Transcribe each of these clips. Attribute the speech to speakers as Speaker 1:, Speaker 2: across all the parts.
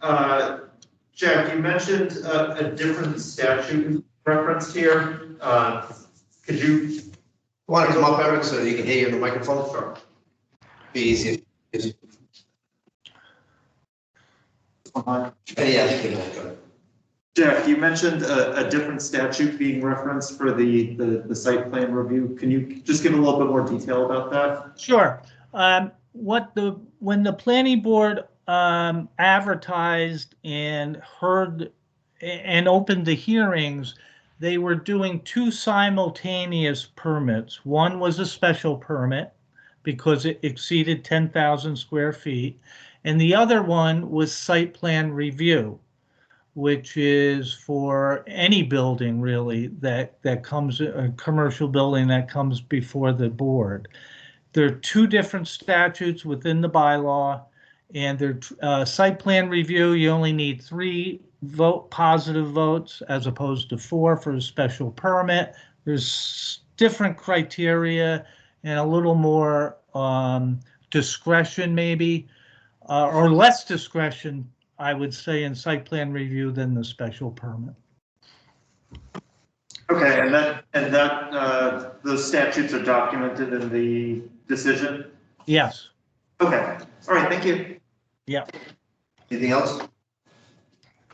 Speaker 1: Uh, Jack, you mentioned a, a different statute referenced here. Uh, could you,
Speaker 2: Want to come up, Eric, so that you can hear you in the microphone? Sure. Be easier. Yeah, yeah, you can go.
Speaker 1: Jack, you mentioned a, a different statute being referenced for the, the, the site plan review. Can you just give a little bit more detail about that?
Speaker 3: Sure. Um, What the, when the planning board um, advertised and heard a- and opened the hearings, they were doing two simultaneous permits. One was a special permit because it exceeded 10,000 square feet. And the other one was site plan review, which is for any building really that, that comes, a commercial building that comes before the board. There are two different statutes within the bylaw, and their uh, site plan review, you only need three vote, positive votes as opposed to four for a special permit. There's different criteria and a little more um, discretion maybe, uh, or less discretion, I would say, in site plan review than the special permit.
Speaker 1: Okay, and that, and that, uh, those statutes are documented in the decision?
Speaker 3: Yes,
Speaker 1: Okay, all right, thank you.
Speaker 2: Anything else?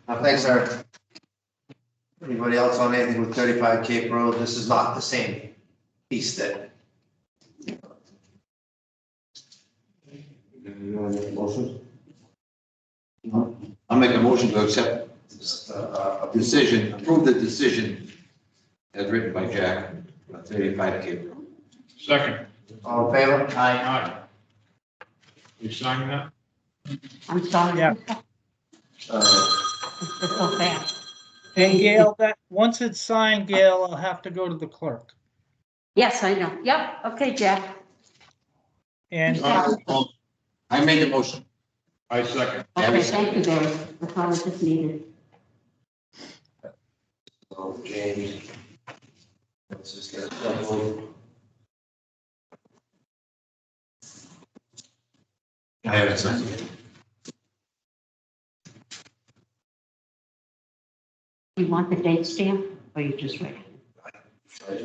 Speaker 2: Uh, Thanks, Eric. Anybody else on anything with thirty-five Cape Road? This is not the same piece that. Motion?
Speaker 4: I'll make a motion to accept a decision, approve the decision as written by Jack, on thirty-five Cape Road.
Speaker 5: Second.
Speaker 2: All in favor? Aye.
Speaker 5: Aye. You sign that?
Speaker 6: I'm sorry.
Speaker 3: Yeah.
Speaker 2: Uh,
Speaker 6: It's so fast.
Speaker 3: and Gail, that, once it's signed, Gail, I'll have to go to the clerk.
Speaker 6: Yes, I know. Yep. Okay, Jack.
Speaker 3: And
Speaker 4: I made the motion.
Speaker 5: I second.
Speaker 6: Okay, thank you, Barry. That's all I just needed.
Speaker 2: So Oh, James. Let's just get that one.
Speaker 4: I haven't signed it.
Speaker 6: You want the date stamp or you just read? it?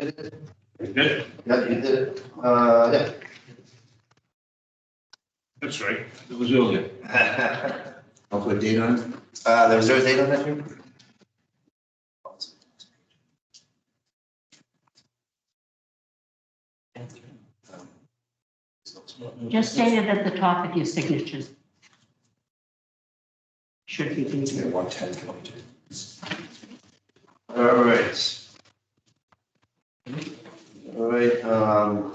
Speaker 5: You did?
Speaker 2: Yeah, you did it. Uh, yeah.
Speaker 5: That's right.
Speaker 4: It was earlier.
Speaker 2: Uh,
Speaker 4: I'll put a date on it.
Speaker 2: there was there Uh, a date on that here?
Speaker 6: Just state it at the top of your signatures. Should be easier.
Speaker 2: One ten twenty-two. All right. All right, um,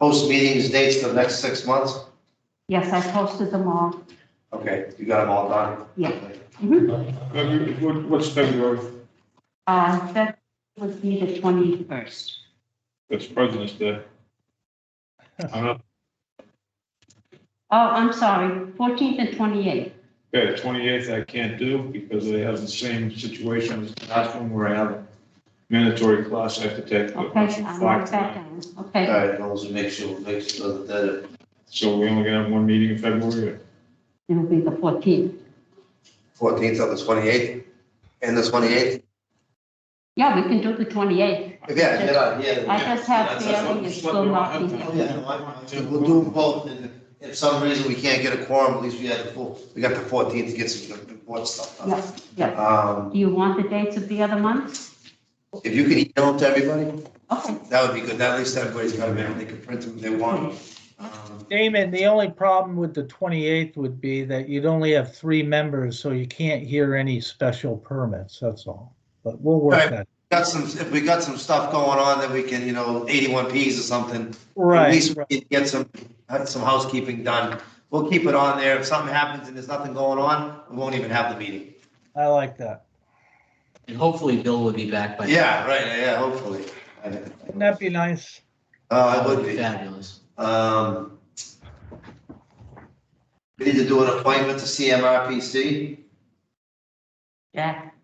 Speaker 2: post meetings, dates for the next six months.
Speaker 6: Yes, I posted them all.
Speaker 2: Okay, you got them all done?
Speaker 6: Yeah.
Speaker 5: February- what- What's February?
Speaker 6: Uh, That would be the 21st.
Speaker 5: That's President's Day. I'm not,
Speaker 6: Oh, I'm sorry, 14th and 28th.
Speaker 5: okay, the twenty-eighth I can't do because I have the same situation as the last one where I have a mandatory class I have to take. but
Speaker 6: Okay,
Speaker 5: it's
Speaker 6: I
Speaker 5: five
Speaker 6: marked that
Speaker 5: tonight.
Speaker 6: down.
Speaker 2: All
Speaker 6: Okay,
Speaker 2: right, those make sure, make sure that,
Speaker 5: So we only gonna have one meeting in February?
Speaker 6: it'll be the 14th.
Speaker 2: fourteenth of the twenty-eighth, and the twenty-eighth?
Speaker 6: Yeah, we can do the 28th.
Speaker 2: Yeah, yeah,
Speaker 6: I
Speaker 2: yeah. That's-
Speaker 6: just have
Speaker 2: that's what-
Speaker 6: feeling it's still not be
Speaker 2: Oh,
Speaker 6: here.
Speaker 2: yeah, no, I- I- We'll do them both, and if some reason we can't get a quorum, at least we had the full, we got the fourteenth to get some good board stuff done.
Speaker 6: Yeah, yeah.
Speaker 2: Um,
Speaker 6: Do you want the dates of the other months?
Speaker 2: if you could email them to everybody,
Speaker 6: Okay,
Speaker 2: that would be good, that at least everybody's got them, and they can print them if they want. Um,
Speaker 3: Damon, the only problem with the 28th would be that you'd only have three members, so you can't hear any special permits, that's all. But we'll work
Speaker 2: Right.
Speaker 3: that.
Speaker 2: Got some, if we got some stuff going on that we can, you know, eighty-one Ps or something, At
Speaker 3: Right,
Speaker 2: least we can get some, have some housekeeping done. We'll keep it on there. If something happens and there's nothing going on, we won't even have the meeting.
Speaker 3: I like that.
Speaker 7: And hopefully Bill will be back by. then.
Speaker 2: Yeah, right, yeah, hopefully.
Speaker 3: Wouldn't that be nice?
Speaker 2: Uh,
Speaker 7: That
Speaker 2: it would be.
Speaker 7: Fabulous.
Speaker 2: Um, we need to do an appointment to CMRPC.
Speaker 6: Jack,